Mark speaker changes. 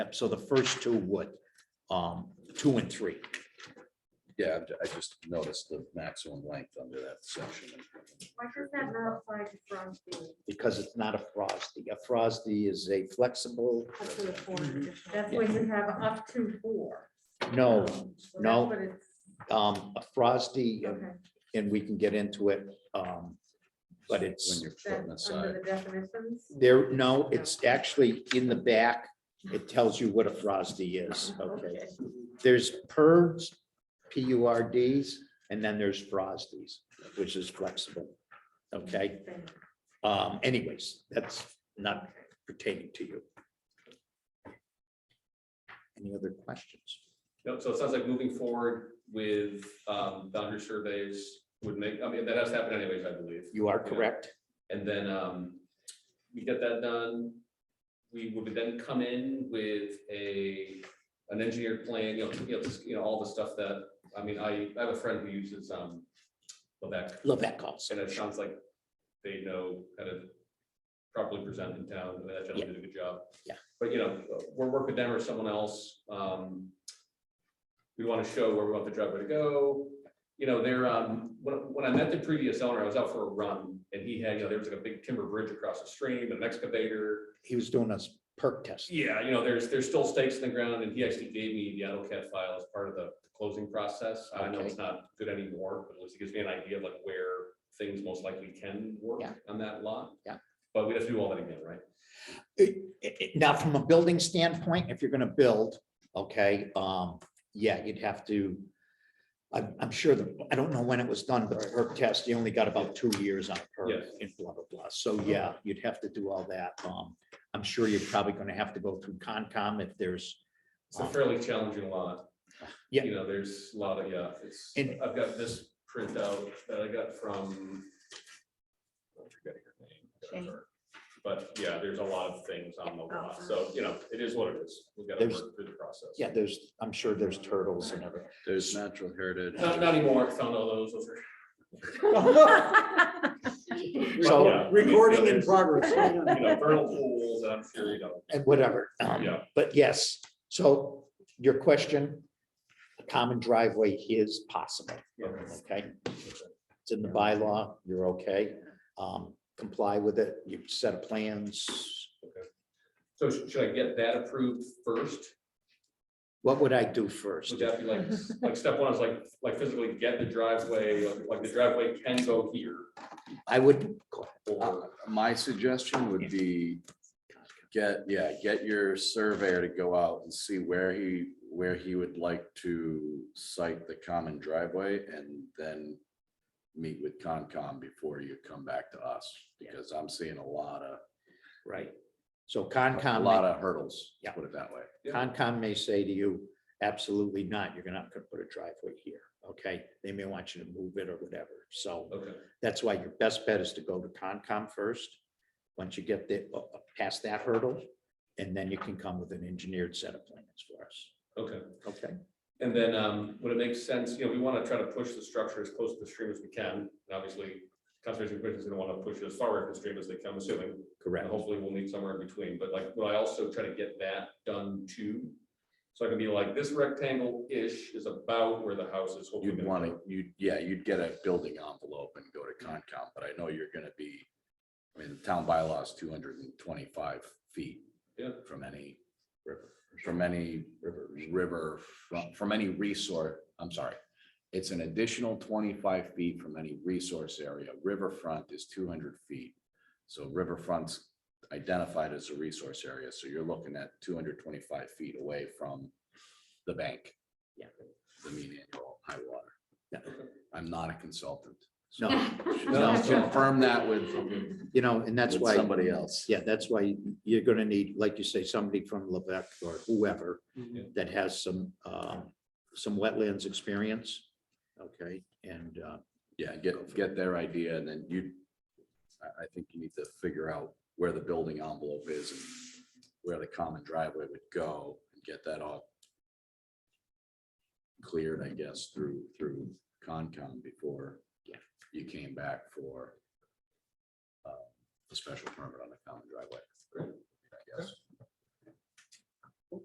Speaker 1: Yep, So the first two would, um, two and three.
Speaker 2: Yeah, I've ju- I just noticed the maximum length under that section.
Speaker 3: Why does that not apply to Crosby?
Speaker 1: because it's not a Frosty. A Frosty is a flexible,
Speaker 4: Up to the four additional.
Speaker 3: That's why you have up to four.
Speaker 1: no,
Speaker 3: So that's
Speaker 1: no.
Speaker 3: what it's-
Speaker 1: um, a Frosty, um,
Speaker 3: Okay,
Speaker 1: and we can get into it. um, But
Speaker 2: When
Speaker 1: it's,
Speaker 2: you're putting
Speaker 3: that's
Speaker 2: aside,
Speaker 3: under the definitions.
Speaker 1: there, no, it's actually in the back. It tells you what a Frosty is, okay? There's PURs, P U R Ds, and then there's Frosties, which is flexible. Okay,
Speaker 3: Okay.
Speaker 1: um, anyways, that's not pertaining to you. Any other questions?
Speaker 5: No, so it sounds like moving forward with um, boundary surveys would make, I mean, that has happened anyways, I believe.
Speaker 1: You are correct.
Speaker 5: And then um, we get that done. We would then come in with a, an engineered plan, you know, you know, just, you know, all the stuff that, I mean, I, I have a friend who uses um, Lebec,
Speaker 1: Love that calls.
Speaker 5: and it sounds like they know kind of properly present in town, and that gentleman did a good job.
Speaker 1: Yeah.
Speaker 5: But, you know, we're working with them or someone else, um, we want to show where we want the driveway to go. You know, there, um, when, when I met the previous owner, I was out for a run and he had, you know, there was like a big timber bridge across the stream, an excavator.
Speaker 1: He was doing a s- perk test.
Speaker 5: Yeah, you know, there's, there's still stakes in the ground and he actually gave me the AutoCAD file as part of the closing process. I know it's not good anymore, but at least it gives me an idea of like where things most likely can work
Speaker 1: Yeah.
Speaker 5: on that lot.
Speaker 1: Yeah.
Speaker 5: But we have to do all that again, right?
Speaker 1: It- it- Now, from a building standpoint, if you're gonna build, okay, um, yeah, you'd have to. I'm, I'm sure the, I don't know when it was done, but the perk test, you only got about two years on perk
Speaker 5: Yes.
Speaker 1: and blah, blah, blah. So, yeah, you'd have to do all that. Um, I'm sure you're probably gonna have to go through Concom if there's,
Speaker 5: It's a fairly challenging lot.
Speaker 1: Yeah.
Speaker 5: You know, there's a lot of, yeah, it's,
Speaker 1: And-
Speaker 5: I've got this printout that I got from. I'm forgetting her name, I got
Speaker 4: Jane.
Speaker 5: her. But yeah, there's a lot of things on the lot,
Speaker 4: Oh.
Speaker 5: so you know, it is what it is. We've got to
Speaker 1: There's-
Speaker 5: work through the process.
Speaker 1: yeah, there's, I'm sure there's turtles and everything.
Speaker 2: there's natural heritage.
Speaker 5: Not, not anymore, found all those, those are.
Speaker 1: So-
Speaker 5: Yeah, I mean,
Speaker 6: Recording in
Speaker 5: there's,
Speaker 6: progress.
Speaker 5: You know, vernal pools, I'm sure, you know,
Speaker 1: and whatever. um,
Speaker 5: Yeah.
Speaker 1: But yes, so your question, a common driveway is possible. Okay? It's in the bylaw, you're okay. Um, comply with it, you set of plans.
Speaker 5: so sh- should I get that approved first?
Speaker 1: What would I do first?
Speaker 5: Would that be like, like step one is like, like physically get the driveway, like- like the driveway can go here?
Speaker 1: I would,
Speaker 5: Or,
Speaker 2: Uh, My suggestion would be get, yeah, get your surveyor to go out and see where he, where he would like to site the common driveway and then meet with Concom before you come back to us, because I'm seeing a lot of,
Speaker 1: right. So
Speaker 2: a
Speaker 1: Concom,
Speaker 2: lot
Speaker 1: may-
Speaker 2: of hurdles,
Speaker 1: Yeah.
Speaker 2: put it that way.
Speaker 1: Concom may say to you, absolutely not, you're not gonna put a driveway here, okay? They may want you to move it or whatever, so.
Speaker 5: okay,
Speaker 1: That's why your best bet is to go to Concom first. Once you get the, uh, past that hurdle, and then you can come with an engineered set of plans for us.
Speaker 5: okay.
Speaker 1: Okay.
Speaker 5: And then, um, would it make sense, you know, we want to try to push the structure as close to the stream as we can, and obviously, conservation commission is going to want to push it as far away from the stream as they can, I'm assuming. And
Speaker 1: Correct.
Speaker 2: Oh.
Speaker 5: hopefully, we'll meet somewhere in between, but like, would I also try to get that done too? So I can be like, this rectangle-ish is about where the house is. hopefully
Speaker 2: You'd
Speaker 5: gonna
Speaker 2: want
Speaker 5: go.
Speaker 2: to, you, yeah, you'd get a building envelope and go to Concom, but I know you're gonna be, I mean, the town bylaw is two hundred and twenty-five feet.
Speaker 5: Yeah.
Speaker 2: From any, from any river, from, from any resource, I'm sorry. It's an additional twenty-five feet from any resource area. Riverfront is two hundred feet. So riverfront's identified as a resource area, so you're looking at two hundred twenty-five feet away from the bank.
Speaker 1: Yeah.
Speaker 2: The mean annual high water.
Speaker 1: Yeah.
Speaker 2: I'm not a consultant. so
Speaker 1: No,
Speaker 2: I'll Confirm that with,
Speaker 1: you know, and that's
Speaker 2: with
Speaker 1: why.
Speaker 2: somebody else.
Speaker 1: Yeah, that's why you're gonna need, like you say, somebody from Levesque or whoever that has some, um, some wetlands experience. Okay, and, uh,
Speaker 2: Yeah, get, get their idea and then you, I, I think you need to figure out where the building envelope is and where the common driveway would go and get that all cleared, I guess, through, through Concom before
Speaker 1: Yeah.
Speaker 2: you came back for uh, a special permit on the common driveway. I guess.